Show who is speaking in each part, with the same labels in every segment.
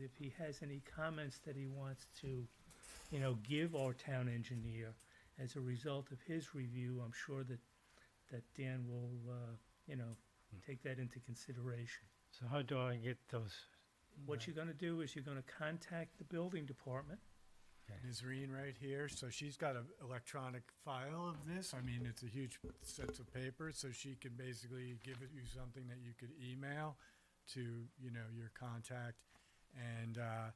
Speaker 1: if he has any comments that he wants to, you know, give our town engineer as a result of his review, I'm sure that, that Dan will, uh, you know, take that into consideration.
Speaker 2: So how do I get those?
Speaker 1: What you're gonna do is you're gonna contact the building department.
Speaker 3: Ms. Reen right here, so she's got an electronic file of this. I mean, it's a huge sets of paper, so she can basically give it you something that you could email to, you know, your contact. And uh,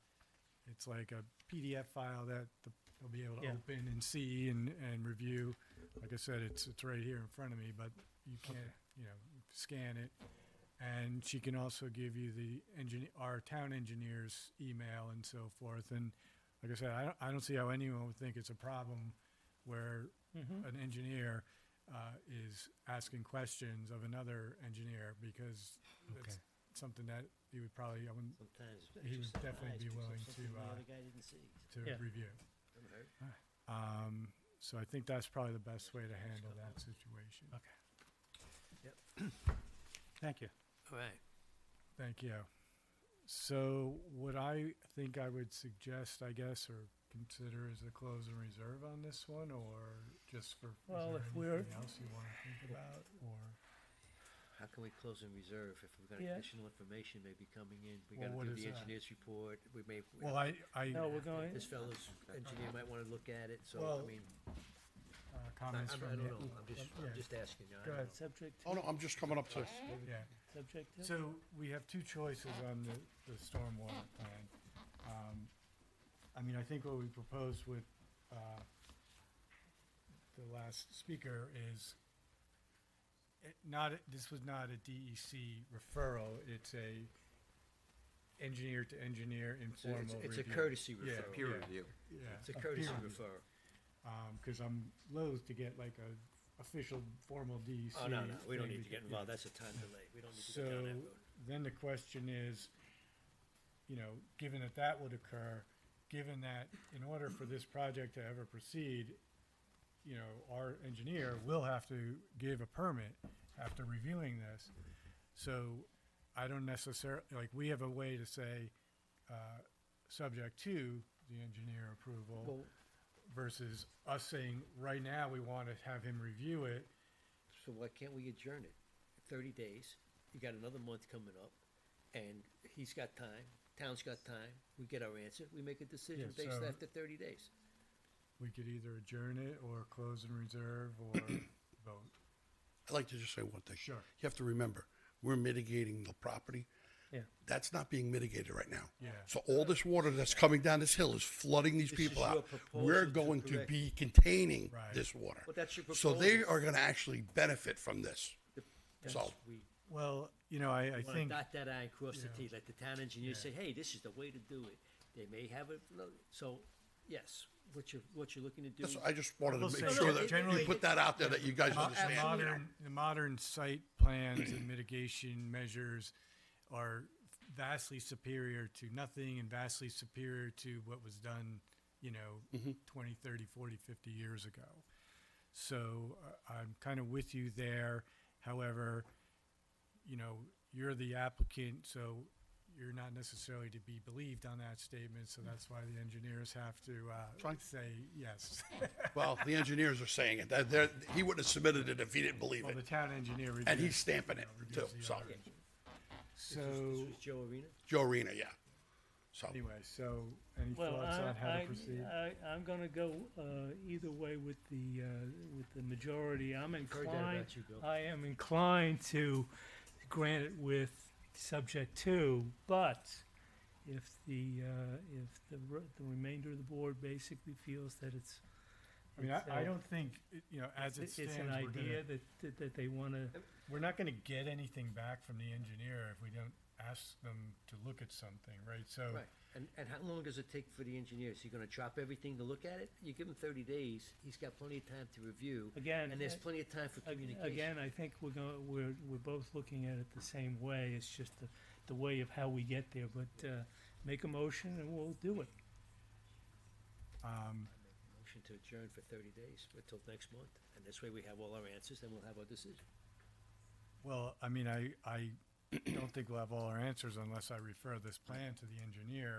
Speaker 3: it's like a PDF file that the- they'll be able to
Speaker 1: Yeah.
Speaker 3: open and see and, and review. Like I said, it's, it's right here in front of me, but you can't, you know, scan it. And she can also give you the engineer, our town engineer's email and so forth. And like I said, I don't, I don't see how anyone would think it's a problem where
Speaker 1: Mhm.
Speaker 3: an engineer uh, is asking questions of another engineer because
Speaker 2: Okay.
Speaker 3: that's something that he would probably, I wouldn't,
Speaker 4: Sometimes it's
Speaker 3: He would
Speaker 4: exercise
Speaker 3: definitely be
Speaker 4: picks up
Speaker 3: willing
Speaker 4: something
Speaker 3: to,
Speaker 4: the
Speaker 3: uh,
Speaker 4: other guy didn't see.
Speaker 3: to
Speaker 1: Yeah.
Speaker 3: review. Um, so I think that's probably the best way to handle that situation.
Speaker 2: Thank you.
Speaker 4: All right.
Speaker 3: Thank you. So what I think I would suggest, I guess, or consider is a close and reserve on this one, or just for,
Speaker 1: Well, if
Speaker 3: is there
Speaker 1: we're-
Speaker 3: anything else you want to think about, or?
Speaker 4: How can we close in reserve if we've got
Speaker 1: Yeah.
Speaker 4: additional information maybe coming in? We
Speaker 3: Well,
Speaker 4: gotta
Speaker 3: what
Speaker 4: do
Speaker 3: is
Speaker 4: the
Speaker 3: that?
Speaker 4: engineer's report, we may, we-
Speaker 3: Well, I, I,
Speaker 1: No, we're going,
Speaker 4: this fellow's engineer might wanna look at it, so, I
Speaker 3: Well,
Speaker 4: mean,
Speaker 3: uh,
Speaker 4: I I'm-
Speaker 3: comments
Speaker 4: I
Speaker 3: from.
Speaker 4: don't
Speaker 3: the-
Speaker 4: know, I'm just,
Speaker 3: yeah.
Speaker 4: I'm just asking, you know, I
Speaker 3: Go
Speaker 4: don't
Speaker 3: ahead.
Speaker 4: know.
Speaker 1: subject
Speaker 5: Oh,
Speaker 1: to,
Speaker 5: no, I'm just coming up to,
Speaker 3: Yeah,
Speaker 1: subject to.
Speaker 3: so we have two choices on the, the stormwater plan. Um, I mean, I think what we proposed with, uh, the last speaker is it not, a- this was not a DEC referral, it's a engineer to engineer
Speaker 4: It's a-
Speaker 3: informal
Speaker 4: it's-
Speaker 3: review.
Speaker 4: It's a courtesy
Speaker 3: Yeah,
Speaker 4: referral.
Speaker 3: yeah, Yeah.
Speaker 4: It's a courtesy
Speaker 3: peer review.
Speaker 4: referral.
Speaker 3: Um, cause I'm loath to get like a official formal E DEC.
Speaker 4: Oh, no, no, we don't
Speaker 3: thing
Speaker 4: need to get
Speaker 3: yeah.
Speaker 4: involved, that's a time delay, we don't need to
Speaker 3: So
Speaker 4: go down that road.
Speaker 3: then the question is, you know, given that that would occur, given that in order for this project to ever proceed, you know, our engineer will have to give a permit after reviewing this. So I don't necessarily, like, we have a way to say, uh, subject to the engineer approval
Speaker 4: Well-
Speaker 3: versus us saying, right now, we want to have him review it.
Speaker 4: So why can't we adjourn it? Thirty days, you got another month coming up, and he's got time, town's got time, we get our answer, we make a decision
Speaker 3: Yeah,
Speaker 4: based
Speaker 3: so-
Speaker 4: after thirty days.
Speaker 3: We could either adjourn it or close and reserve or vote.
Speaker 5: I'd like to just say one thing.
Speaker 3: Sure.
Speaker 5: You have to remember, we're mitigating the property.
Speaker 1: Yeah.
Speaker 5: That's not being mitigated right now.
Speaker 3: Yeah.
Speaker 5: So all this water that's coming down this hill is flooding these
Speaker 4: This
Speaker 5: people
Speaker 4: is your
Speaker 5: out.
Speaker 4: proposal
Speaker 5: We're
Speaker 4: to
Speaker 5: going to
Speaker 4: correct-
Speaker 5: be containing
Speaker 3: Right.
Speaker 5: this water.
Speaker 4: Well, that's your
Speaker 5: So they
Speaker 4: proposal.
Speaker 5: are gonna actually benefit from this.
Speaker 4: The-
Speaker 5: So,
Speaker 4: We
Speaker 3: Well, you know, I, I
Speaker 4: wanna
Speaker 3: think,
Speaker 4: dot that I and cross the
Speaker 3: Yeah.
Speaker 4: T, let the town engineer
Speaker 3: Yeah.
Speaker 4: say, hey, this is the way to do it. They may have it, lo- so, yes, what you're, what you're looking to do.
Speaker 5: that's- I just wanted
Speaker 3: We'll
Speaker 5: to
Speaker 3: say
Speaker 5: make sure
Speaker 3: that
Speaker 5: that
Speaker 3: generally-
Speaker 5: you put that out there, that you guys
Speaker 3: mo- uh,
Speaker 5: understand. you know.
Speaker 3: modern, the modern site plans and mitigation measures are vastly superior to nothing and vastly superior to what was done, you
Speaker 5: Mm-hmm.
Speaker 3: know, 20, 30, 40, 50 years ago. So uh, I'm kind of with you there. However, you know, you're the applicant, so you're not necessarily to be believed on that statement. So that's why the engineers have to uh,
Speaker 5: Fine.
Speaker 3: say yes.
Speaker 5: Well, the engineers are saying it. They're- They're, he wouldn't have submitted it if he didn't believe
Speaker 3: Well, the
Speaker 5: it.
Speaker 3: town engineer reviews.
Speaker 5: And he's stamping
Speaker 3: you
Speaker 5: it
Speaker 3: know,
Speaker 5: too,
Speaker 3: reviews
Speaker 5: so,
Speaker 3: the other-
Speaker 4: This was- this
Speaker 3: So,
Speaker 4: was Joe Arena,
Speaker 5: Joe Arena, yeah. So,
Speaker 3: anyway, so any
Speaker 1: Well,
Speaker 3: thoughts
Speaker 1: I-
Speaker 3: on how
Speaker 1: I-
Speaker 3: to proceed?
Speaker 1: I, I'm gonna go, uh, either way with the, uh, with the majority, I'm
Speaker 4: heard that
Speaker 1: inclined,
Speaker 4: about you,
Speaker 3: Uh,
Speaker 4: Bill.
Speaker 1: I am inclined to grant it with subject to, but if the, uh, if the, re- the remainder of the board basically feels that it's.
Speaker 3: I mean, I,
Speaker 1: it's,
Speaker 3: I
Speaker 1: uh,
Speaker 3: don't think, it- you know, as it
Speaker 1: It's an
Speaker 3: stands, we're
Speaker 1: idea
Speaker 3: gonna,
Speaker 1: that, that, that they wanna,
Speaker 3: we're not gonna get anything back from the engineer if we don't ask them to look at something, right? So,
Speaker 4: right, and, and how long does it take for the engineer? Is he gonna chop everything to look at it? You give him thirty days, he's got plenty of time to review.
Speaker 1: Again,
Speaker 4: And there's
Speaker 1: uh,
Speaker 4: plenty of time for
Speaker 1: Ag-
Speaker 4: communication.
Speaker 1: Again, I think we're going, we're, we're both looking at it the same way, it's just the, the way of how we get there, but, uh, make a motion and we'll do it.
Speaker 3: um,
Speaker 4: Motion to adjourn for thirty days, until next month, and this way we have all our answers, then we'll have our decision.
Speaker 3: well, I mean, I, I don't think we'll have all our answers unless I refer this plan to the engineer